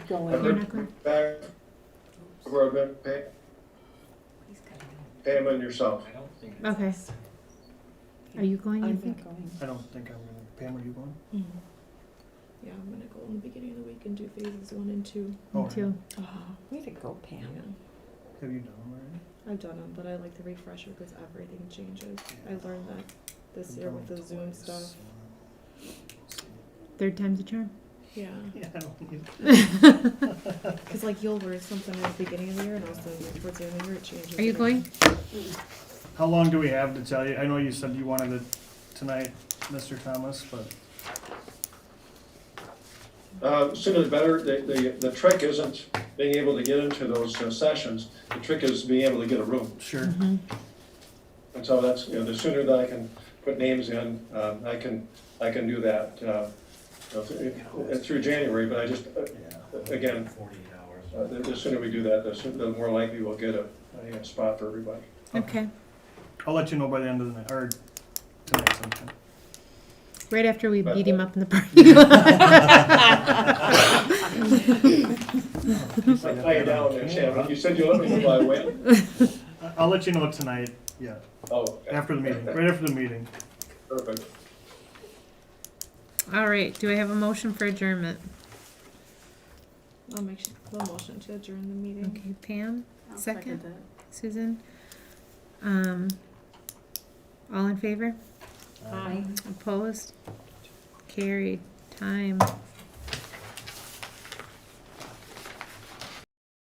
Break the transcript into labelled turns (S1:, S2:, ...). S1: going.
S2: You're
S3: Remember
S2: not going-
S3: back, remember, pay, pay them on yourself.
S4: I don't think.
S2: Okay. Are you going, you
S1: I'm
S2: think?
S1: not going.
S5: I don't think I'm gonna, Pam, are you going?
S6: Yeah, I'm gonna go in the beginning of the week and do phases one and two.
S5: Oh,
S2: Me too.
S6: Oh,
S1: Way to go, Pam.
S5: Have you done them already?
S6: I've done them, but I like the refresher because everything changes. I learned that this
S5: I've
S6: year
S5: done
S6: with
S5: them
S6: the Zoom
S5: twice,
S6: stuff.
S5: so-
S2: Third time's a charm.
S6: Yeah,
S5: Yeah, I don't need-
S6: because like you'll learn something at the beginning of the year, and also like, towards the end of the year it changes.
S2: Are you
S6: and
S2: going?
S5: How long do we have to tell you? I know you said you wanted it tonight, Mr. Thomas, but
S3: Uh, sooner the better, the, the, the trick isn't being able to get into those uh, sessions, the trick is being able to get a room.
S5: sure.
S3: And so that's, you know, the sooner that I can put names in, um, I can, I can do that, uh, you know, through- through January, but I just, uh, Again.
S4: Forty-eight hours.
S3: Uh, The the sooner we do that, the sooner, the more likely we'll get a, a spot for everybody.
S2: Okay.
S5: I'll let you know by the end of the night, or tonight sometime.
S2: Right after we
S3: But-
S2: beat him up in the parking lot.
S3: I tie you down there, Shannon. You said you'll let me know by when?
S5: I- I'll let you know tonight, yeah,
S3: Oh. okay.
S5: after the meeting, right after the meeting.
S3: Perfect.
S2: All right. Do I have a motion for adjournment?
S6: I'll make sure, I'll motion to adjourn the meeting.
S2: Okay, Pam, second, Susan. Um, all in favor?
S1: Aye.
S2: Opposed? Carried. Time